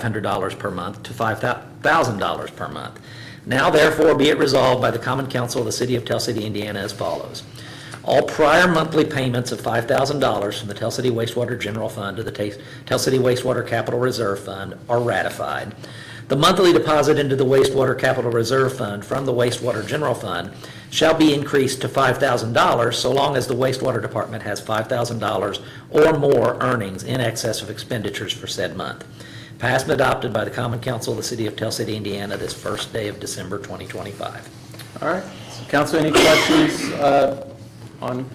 $2,500 per month to $5,000 per month. Now therefore be it resolved by the Common Council of the City of Tell City, Indiana as follows. All prior monthly payments of $5,000 from the Tell City Wastewater General Fund to the Ta- Tell City Wastewater Capital Reserve Fund are ratified. The monthly deposit into the wastewater capital reserve fund from the wastewater general fund shall be increased to $5,000 so long as the wastewater department has $5,000 or more earnings in excess of expenditures for said month. Passed and adopted by the common council of the city of Tell City, Indiana, this first day of December 2025. All right. Council, any questions uh, on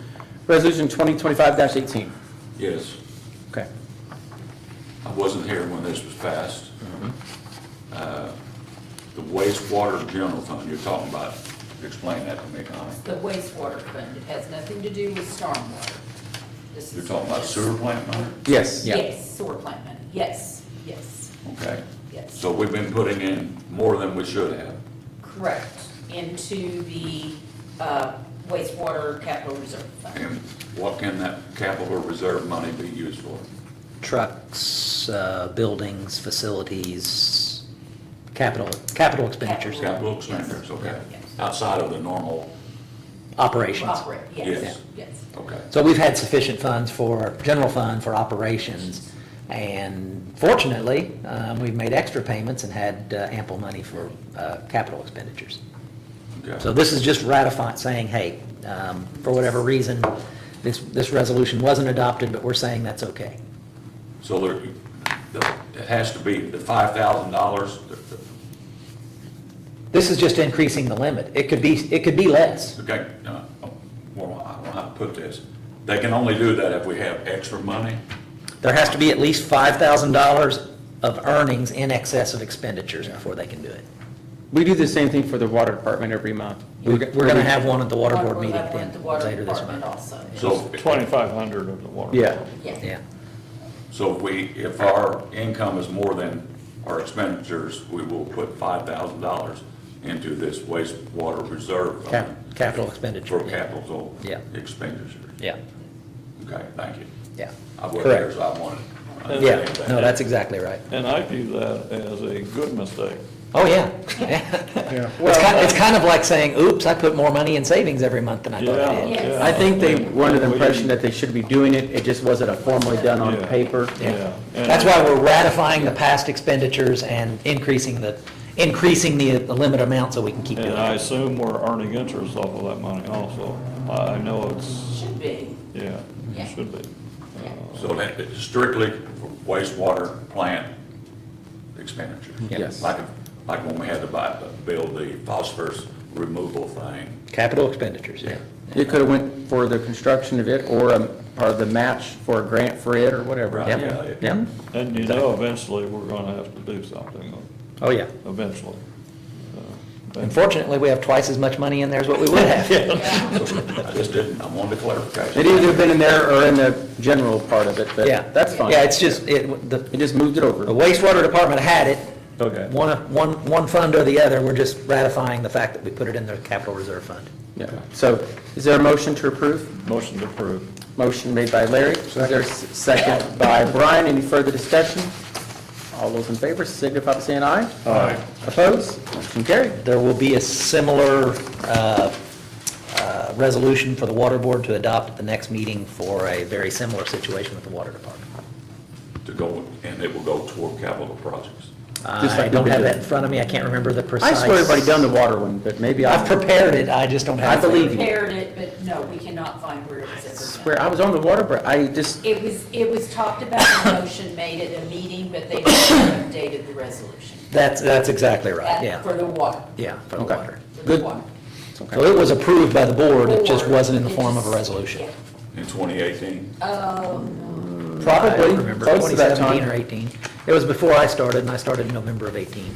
Resolution 2025-18? Yes, Okay. I wasn't here when this was passed. Uh, The wastewater general fund, you're talking about, explain that to me, Connie. The wastewater fund, it has nothing to do with stormwater. This You're is- talking about sewer plant money? Yes. Yes, sewer plant money, yes, yes, Okay. yes. So we've been putting in more than we should have. Correct, into the uh, wastewater capital reserve fund. And what can that capital reserve money be used for? Trucks, uh, buildings, facilities, capital, capital expenditures, Capital expenditures, okay. Yes. Outside of the normal, operations. Operate, yes, yes. okay. So we've had sufficient funds for, general fund for operations, and fortunately, um, we've made extra payments and had uh, ample money for uh, capital expenditures. okay. So this is just ratifying, saying, hey, um, for whatever reason, this, this resolution wasn't adopted, but we're saying that's okay. So there, the- it has to be the five thousand dollars, This is just increasing the limit. It could be, it could be less. Okay, uh, well, I don't know how to put this. They can only do that if we have extra money? There has to be at least $5,000 of earnings in excess of expenditures before they can do it. We do the same thing for the water department every month. We're going to have one at the water board We'll meeting have one at the water later this department month. Also. So, Twenty-five hundred of the water. Yeah. Yeah, Yeah. so if we, if our income is more than our expenditures, we will put five thousand dollars into this wastewater reserve. Cap- fund capital expenditure, For yeah. capital Yeah. expenditures. Yeah, Okay, thank you. yeah. I wasn't there, Correct. so I wanted. to Yeah, understand that. no, that's exactly right. And I view that as a good mistake. Oh, yeah. It's kind, it's kind of like saying, oops, I put more money in savings every month than I thought I Yeah, did. Yes. yeah. I think they were under the We- impression that they should be doing it, it just wasn't formally done on Yeah. paper. Yeah. and- That's why we're ratifying the past expenditures and increasing the, increasing the, the limit amount so we can keep doing And I it. assume we're earning interest off of that money also. I I know it's, should be, yeah, Yeah. it should be. yeah. So that is strictly for wastewater plant expenditure. Yes. Like, like when we had to buy, uh, build the phosphorus removal thing. Capital expenditures, yeah. It could have went for the construction of it, or um, part of the match for a grant for it, or whatever. Right, yeah, yeah. Yeah. And you know, eventually, we're gonna have to do something, uh, Oh, yeah. eventually. Uh, and- Unfortunately, we have twice as much money in there as what we would have. I just didn't, I wanted to clarify. It either been in there or in the general part of it, but Yeah. that's fine. Yeah, it's just, it, the, It just moved it over. the wastewater department had it. Okay. One, one, one fund or the other, we're just ratifying the fact that we put it in the capital reserve fund. Yeah. So is there a motion to approve? Motion to approve. Motion made by Larry. Is there a s- second by Brian? Any further discussion? All those in favor signify by saying aye. Aye. Opposed? Motion carried. There will be a similar uh, uh, resolution for the water board to adopt at the next meeting for a very similar situation with the water department. To go, and it will go toward capital projects. Just like I we don't have did. that in front of me, I can't remember the I precise. swear everybody done the water one, but maybe I. I've prepared it, I just don't have. I it. believe you. Prepared it, but no, we cannot find where it was ever done. Swear, I was on the water, but I just, It was, it was talked about, a motion made at a meeting, but they never updated the resolution. That's, that's exactly right, That- yeah, For the water, yeah, for the Okay. water. for Good. the water. So it was approved by the board, it just Or wasn't in the form of a it's- resolution. yeah. In 2018, I probably, don't remember, close to that 2017 or 18. time. It was before I started, and I started in November of 18.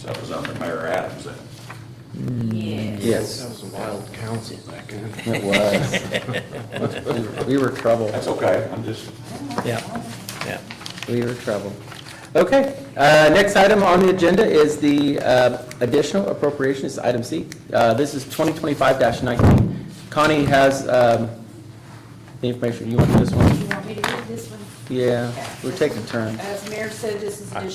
so that was under Mayor Adams then. Mm. Yes. Yes, was a wild council back then. it was. We were trouble. That's okay, I'm just, Yeah, yeah. We were trouble. Okay, uh, next item on the agenda is the uh, additional appropriation, it's item C. Uh, This is 2025-19. Connie has um, the information, you want to do this one? You want me to read this one? Yeah, we're taking turns. As Mayor said, this is additional